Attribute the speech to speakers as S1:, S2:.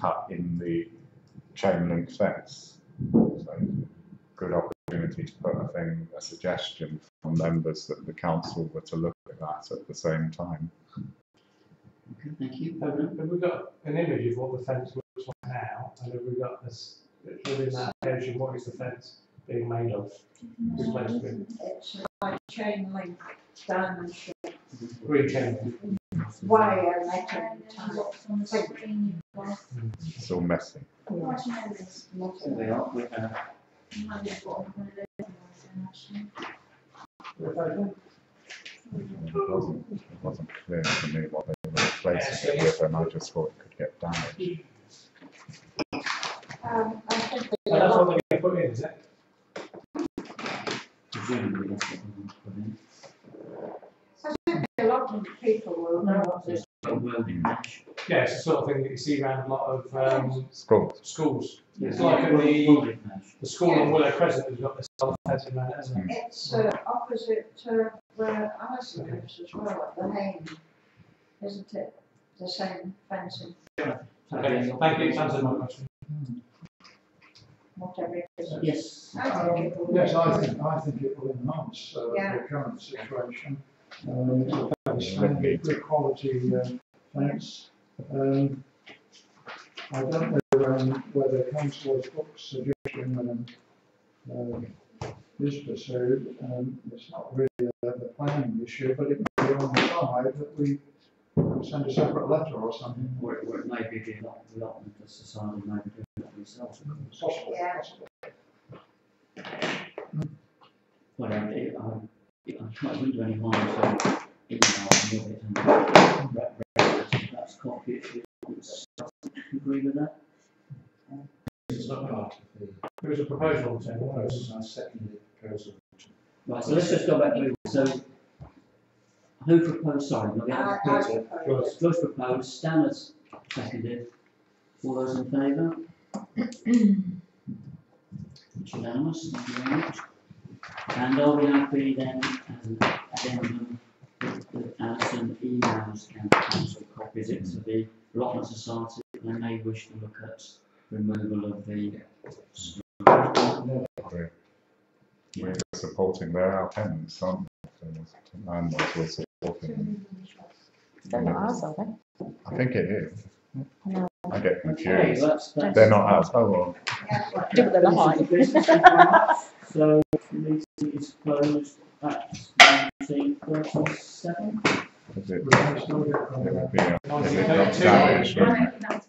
S1: cut in the chain link fence. So, good opportunity to put a thing, a suggestion from members that the council were to look at that at the same time.
S2: Okay, thank you.
S3: Have we- have we got an image of what the fence looks like now? And have we got this, within that vision, what is the fence being made of? Replacement,
S4: It's like chain link diamond shape,
S3: re-chain.
S4: wire metal tie.
S1: It's all messy.
S2: So they are, we have,
S1: It wasn't, it wasn't clear to me what they were replacing it with, and I just thought it could get damaged.
S4: Um, I think they
S3: And that's what they're
S4: are,
S3: going to put in, is it?
S2: presumably that's what we want to put in.
S4: a lot of people will know what this,
S2: But welding mesh.
S3: Yeah, it's the sort of thing that you see around a lot of um,
S1: Schools,
S3: schools. It's
S2: Yeah,
S3: like in the,
S2: Welding mesh.
S3: the school on Willow Crescent has got this sort of fence around it, hasn't it?
S4: it's uh, opposite uh, where Alison lives as well, at the Hain. Isn't it the same fencing,
S3: Okay, thank you, it's answered my question.
S4: whatever it is?
S2: Yes.
S4: I think it will be.
S5: Yes, I think, I think it will enhance uh,
S4: Yeah.
S5: the current situation. Um, It's a fairly standard, good quality uh, fence. Um, I don't know um, whether councillor Cook's suggestion um, um, is pursued. Um, It's not really a a planning issue, but it may be on the side that we send a separate letter or something.
S2: Or, or it may be the lot- the lot of the society may be doing that themselves.
S5: It's Possible,
S4: Yeah.
S5: possible.
S2: Well, I, I, I wouldn't do any harm to email and it and re- re- re- that's copy it. if it's- you Agree with that?
S6: It's not part of the,
S3: There was a proposal, so what else?
S6: process. I second the proposal.
S2: Right, so let's just go back to, so who proposed, sorry, not the
S4: I,
S2: other
S4: I
S2: proposal.
S4: suppose.
S2: George proposed, Stan has seconded. All those in favour? It's unanimous, thank you very much. And are we happy then as an addendum that Alison emails can council copies it to the allotment society? They may wish to look at removal of the.
S1: we're, we're supporting their applicants, aren't we? And we're supporting,
S7: They're not ours, are they?
S1: I think it is.
S7: No.
S1: I get
S2: Okay,
S1: confused.
S2: that's, that's.
S1: They're not ours, oh well.
S4: Yes,
S7: Do what they
S2: This
S7: like.
S2: is the business of the- So, meeting is closed at nineteen thirty-seven.
S1: Is it,
S5: We can still get,
S1: it
S5: uh,
S1: would be, a-
S3: One,
S1: it
S3: two,
S1: would not
S3: two.
S1: damage, wouldn't it?